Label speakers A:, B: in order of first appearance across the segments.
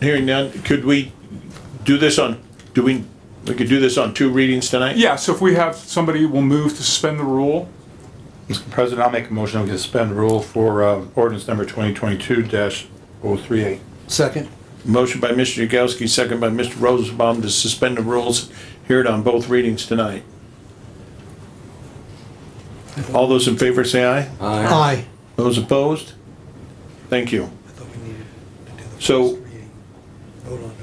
A: Hearing none, could we do this on, do we, we could do this on two readings tonight?
B: Yeah, so if we have, somebody will move to suspend the rule.
C: Mr. President, I'll make a motion to suspend rule for uh, ordinance number 2022-038.
D: Second.
A: Motion by Mr. Yagowski, second by Mr. Rosenbaum to suspend the rules, hear it on both readings tonight. All those in favor say aye.
D: Aye.
A: Those opposed? Thank you. So, do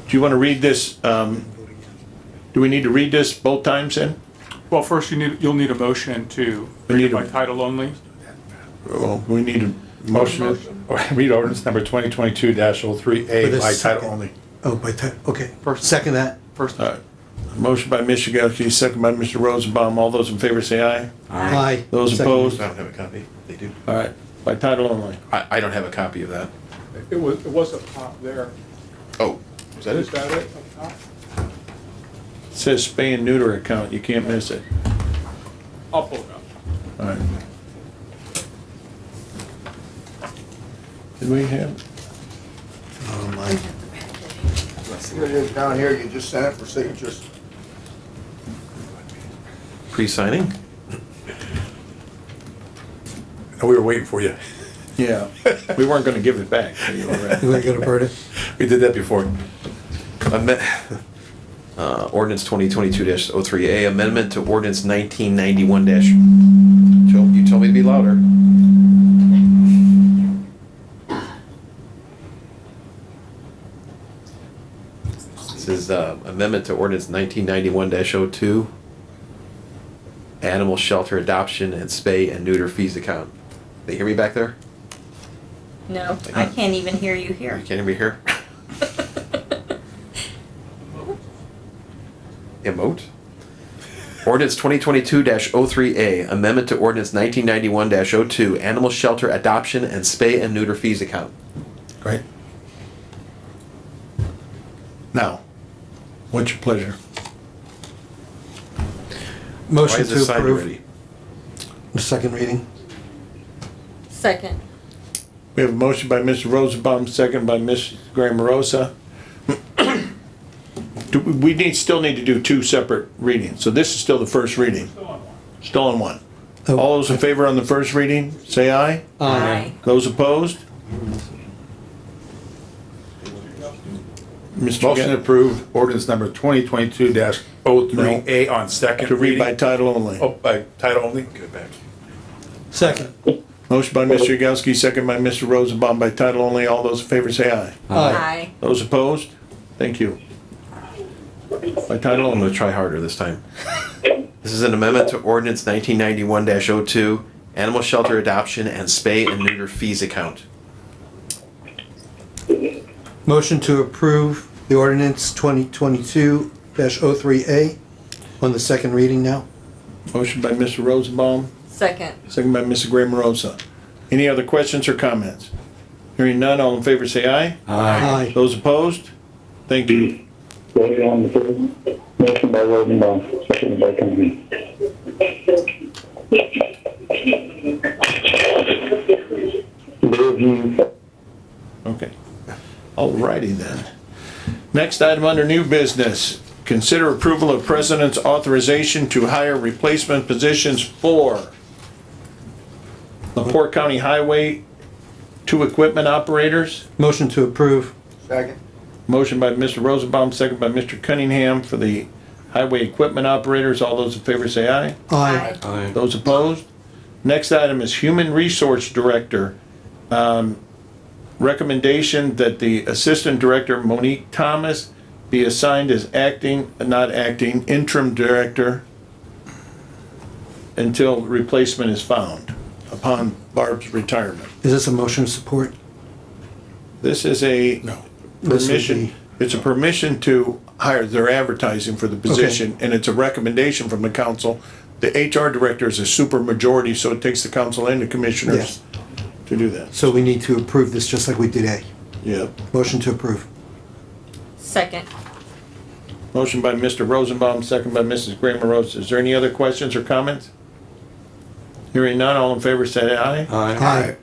A: you want to read this, um, do we need to read this both times then?
B: Well, first you need, you'll need a motion to
A: We
B: read
A: need
B: it by
A: a-
B: title only.
A: Well, we need a motion.
C: Motion, to read ordinance number 2022-038
D: With a
C: by
D: second.
C: title only.
D: Oh, by title, okay.
B: First.
D: Second that.
B: First,
A: All right. Motion by Mr. Yagowski, second by Mr. Rosenbaum. All those in favor say aye.
D: Aye.
A: Those
D: Second.
A: opposed?
E: I don't have a copy. They do.
A: All right, by title only.
E: I, I don't have a copy of that.
B: it was, it was up top there.
E: Oh, is that
B: Is
E: it?
B: that it up top?
A: It Says spay and neuter account, you can't miss it.
B: I'll pull it up.
A: All right. Did we have,
D: Oh, my.
F: Here it is down here, you just sent it for signatures.
E: Pre-signing?
C: We were waiting for you.
A: yeah, we weren't gonna give it back. so you were right.
D: You want to go to Berta?
C: We did that before.
G: Amen- uh, Ordinance 2022-03A, amendment to ordinance 1991 dash, Joe, you tell me to be louder. This is uh, amendment to ordinance 1991 dash 02, animal shelter adoption and spay and neuter fees account. They hear me back there?
H: No, I can't even hear you here.
G: You can't hear me here? Emote? Ordinance 2022-03A, amendment to ordinance 1991-02, animal shelter adoption and spay and neuter fees account.
A: Right. Now, what's your pleasure?
G: Why
D: Motion
G: is this
D: to
G: signed
D: approve.
G: already?
D: The second reading.
H: Second.
A: We have a motion by Mr. Rosenbaum, second by Ms. Graham Rosa. Do, we- we need, still need to do two separate readings, so this is still the first reading. Still on one. All those in favor on the first reading, say aye.
H: Aye.
A: Those opposed? Mr.
C: Motion
A: Ga-
C: to approve ordinance number 2022-038 on second
A: to read by
C: reading.
A: title only.
C: Oh, by title only? Give it back.
D: Second.
A: Motion by Mr. Yagowski, second by Mr. Rosenbaum, by title only. All those in favor say aye.
D: Aye.
H: Aye.
A: Those opposed? Thank you. By title
G: I'm
A: only.
G: gonna try harder this time. This is an amendment to ordinance 1991-02, animal shelter adoption and spay and neuter fees account.
D: Motion to approve the ordinance 2022-03A on the second reading now.
A: Motion by Mr. Rosenbaum,
H: Second.
A: second by Mr. Graham Rosa. Any other questions or comments? Hearing none, all in favor say aye.
D: Aye.
A: Those opposed? Thank you.
I: Voted on the first, motion by Rosenbaum, seconded by Company. Dave Hughes,
A: Okay. Alrighty then. Next item under new business, consider approval of president's authorization to hire replacement positions for Lepore County Highway, two equipment operators.
D: Motion to approve.
F: Second.
A: Motion by Mr. Rosenbaum, second by Mr. Cunningham for the highway equipment operators. All those in favor say aye.
D: Aye.
A: Those opposed? Next item is Human Resource Director. Um, Recommendation that the Assistant Director Monique Thomas be assigned as acting, not acting, interim director until replacement is found upon Barb's retirement.
D: Is this a motion of support?
A: This is a
D: This would
A: permission,
D: be-
A: it's a permission to hire, they're advertising for the position, and it's a recommendation from the council. The HR director is a super majority, so it takes the council and the commissioners
D: Yes.
A: to do that.
D: So we need to approve this just like we did A.
A: Yeah.
D: Motion to approve.
H: Second.
A: Motion by Mr. Rosenbaum, second by Mrs. Graham Rosa. Is there any other questions or comments? Hearing none, all in favor say aye.
D: Aye.